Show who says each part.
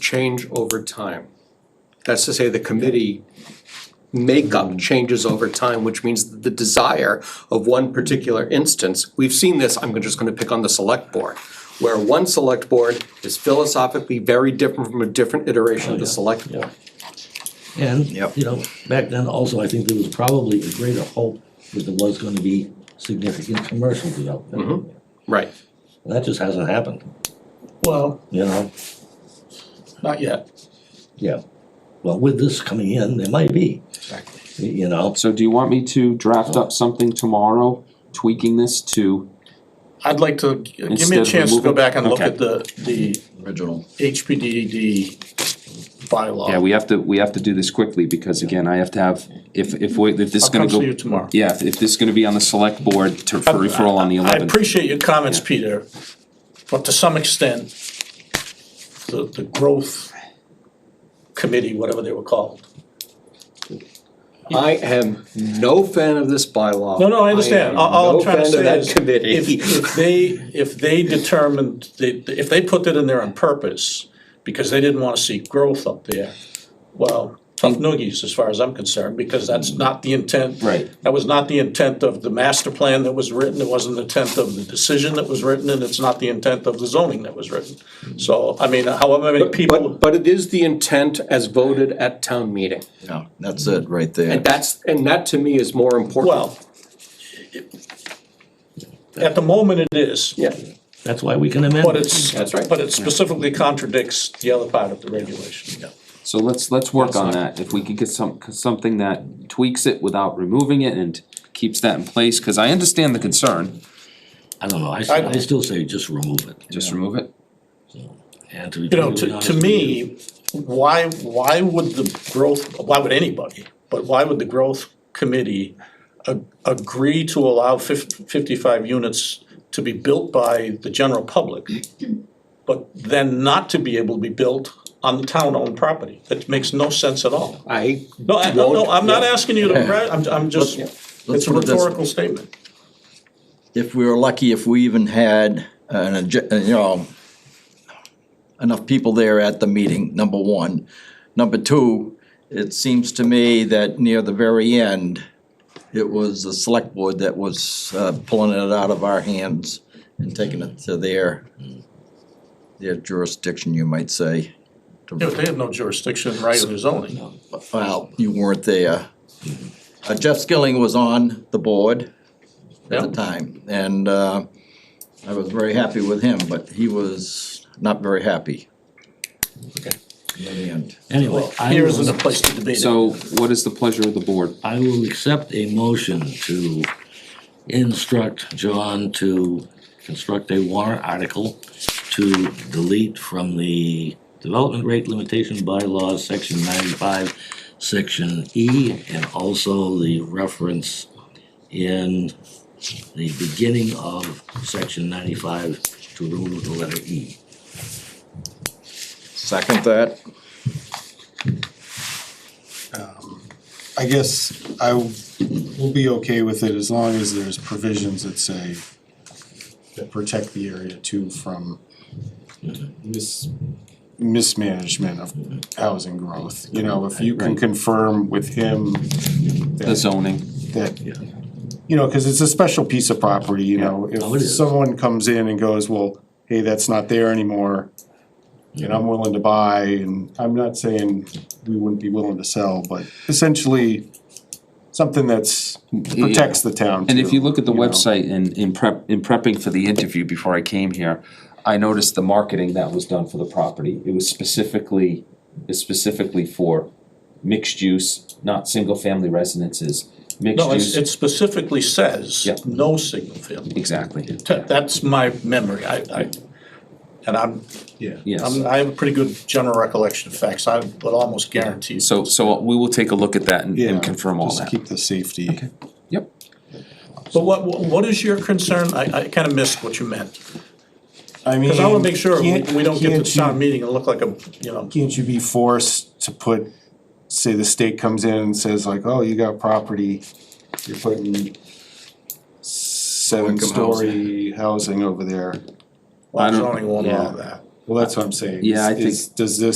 Speaker 1: change over time. That's to say, the committee makeup changes over time, which means that the desire of one particular instance, we've seen this, I'm just gonna pick on the select board, where one select board is philosophically very different from a different iteration of
Speaker 2: Oh,
Speaker 1: the select board.
Speaker 3: And,
Speaker 4: Yep.
Speaker 3: you know, back then also, I think there was probably a greater hope that there was gonna be significant commercial
Speaker 4: Mm-hmm.
Speaker 3: development.
Speaker 1: Right,
Speaker 3: And that just hasn't happened,
Speaker 2: Well,
Speaker 3: you know,
Speaker 2: not yet.
Speaker 3: yeah. Well, with this coming in, there might be,
Speaker 2: Exactly.
Speaker 3: y- you know,
Speaker 5: So do you want me to draft up something tomorrow, tweaking this to,
Speaker 2: I'd like to, give
Speaker 5: Instead
Speaker 2: me a
Speaker 5: of
Speaker 2: chance to go
Speaker 5: removal?
Speaker 2: back and look
Speaker 5: Okay.
Speaker 2: at the, the
Speaker 4: Original.
Speaker 2: HPDD bylaw.
Speaker 5: yeah, we have to, we have to do this quickly, because again, I have to have, if, if we, if this is
Speaker 2: I'll
Speaker 5: gonna
Speaker 2: come
Speaker 5: go.
Speaker 2: to you tomorrow. Uh,
Speaker 5: Yeah, if- if this is gonna be on the select board to for referral on the
Speaker 2: I
Speaker 5: eleventh.
Speaker 2: appreciate your comments, Peter, but to some extent, the, the growth committee, whatever they were called.
Speaker 1: I am no fan of this bylaw.
Speaker 2: No, no, I
Speaker 1: am
Speaker 2: understand, all, all I'm
Speaker 1: no
Speaker 2: trying to
Speaker 1: fan of
Speaker 2: say
Speaker 1: that
Speaker 2: is,
Speaker 1: committee.
Speaker 2: if, if they, if they determined, they, if they put that in there on purpose, because they didn't wanna see growth up there, well, tough
Speaker 1: Mm.
Speaker 2: noogies as far as I'm concerned, because that's not the intent.
Speaker 5: Right.
Speaker 2: That was not the intent of the master plan that was written, it wasn't the intent of the decision that was written, and it's not the intent of the zoning that was written. So, I mean, however many people,
Speaker 1: Mm. But, but it is the intent as voted at town meeting.
Speaker 4: Yeah, that's it right there.
Speaker 1: And that's, and that to me is more important.
Speaker 2: well, at the moment it is,
Speaker 1: Yeah,
Speaker 3: that's why we can amend.
Speaker 2: But
Speaker 3: it.
Speaker 2: it's,
Speaker 1: That's right.
Speaker 2: but it specifically contradicts the other part of the regulation.
Speaker 5: So let's, let's work on that, if we could get some, something that tweaks it without removing it and keeps that in place, cause I understand the concern,
Speaker 3: I don't know, I, s-
Speaker 2: I-
Speaker 3: I still say just remove it.
Speaker 5: just remove it.
Speaker 3: And to be
Speaker 2: You know,
Speaker 3: perfectly
Speaker 2: to,
Speaker 3: honest
Speaker 2: to
Speaker 3: with you,
Speaker 2: me, why, why would the growth, why would anybody, but why would the growth committee a- agree to allow fif- fifty-five units to be built by the general public, but then not to be able to be built on the town-owned property? That makes no sense at all.
Speaker 1: I,
Speaker 2: No, I, no, no, I'm not
Speaker 1: Yeah.
Speaker 2: asking you to, pre- I'm, I'm just,
Speaker 4: Let's
Speaker 2: it's a
Speaker 4: put it this way.
Speaker 2: rhetorical statement.
Speaker 4: If we were lucky, if we even had an, adj- uh, you know, enough people there at the meeting, number one. Number two, it seems to me that near the very end, it was the select board that was uh, pulling it out of our hands and taking it to their, their jurisdiction, you might say.
Speaker 2: Yeah, but they have no jurisdiction right in the zoning.
Speaker 4: Well, you weren't there. Uh, Jeff Skilling was on the board at the
Speaker 2: Yeah.
Speaker 4: time, and uh, I was very happy with him, but he was not very happy.
Speaker 2: Okay.
Speaker 4: In the end.
Speaker 3: Anyway, I
Speaker 2: Here
Speaker 3: will-
Speaker 2: isn't a place to debate it.
Speaker 5: So what is the pleasure of the board?
Speaker 3: I will accept a motion to instruct John to construct a warrant article to delete from the development rate limitation bylaws, section ninety-five, section E, and also the reference in the beginning of section ninety-five to remove the letter E.
Speaker 4: Second that,
Speaker 6: I guess I will be okay with it as long as there's provisions that say that protect the area too from mis- mismanagement of housing growth. You know, if you can
Speaker 5: Right.
Speaker 6: confirm with him
Speaker 5: The
Speaker 6: that,
Speaker 5: zoning,
Speaker 6: that, you know, cause it's a special piece of property, you know?
Speaker 3: Oh, it
Speaker 6: If
Speaker 3: is.
Speaker 6: someone comes in and goes, well, hey, that's not there anymore, and I'm willing to buy, and I'm not saying we wouldn't be willing to sell, but essentially something that's protects the town
Speaker 5: and if
Speaker 6: too,
Speaker 5: you look at the
Speaker 6: you know?
Speaker 5: website and in prep, in prepping for the interview before I came here, I noticed the marketing that was done for the property, it was specifically, it's specifically for mixed use, not single-family residences, mixed
Speaker 2: No, it's-
Speaker 5: use.
Speaker 2: it specifically says,
Speaker 5: Yeah.
Speaker 2: no signal field.
Speaker 5: Exactly,
Speaker 2: Th- That's my memory, I, I, and I'm,
Speaker 5: yes.
Speaker 2: I'm, I have a pretty good general recollection of facts, I would almost guarantee. you.
Speaker 5: So, so we will take a look at that and-
Speaker 6: Yeah,
Speaker 5: and confirm all
Speaker 6: Just
Speaker 5: that.
Speaker 6: keep the safety.
Speaker 5: Yep.
Speaker 2: But what, what what is your concern? I, I kinda missed what you meant.
Speaker 6: I mean,
Speaker 2: Cause I wanna make sure we,
Speaker 6: can't-
Speaker 2: we don't get to
Speaker 6: can't
Speaker 2: the
Speaker 6: you-
Speaker 2: town meeting and look like a, you know,
Speaker 6: Can't you be forced to put, say the state comes in and says like, oh, you got property, you're putting seven-story housing over there.
Speaker 2: well,
Speaker 5: don't-
Speaker 2: zoning won't allow
Speaker 6: yeah.
Speaker 2: that.
Speaker 6: Well, that's what I'm saying.
Speaker 5: Yeah, I
Speaker 6: Is- is- Does this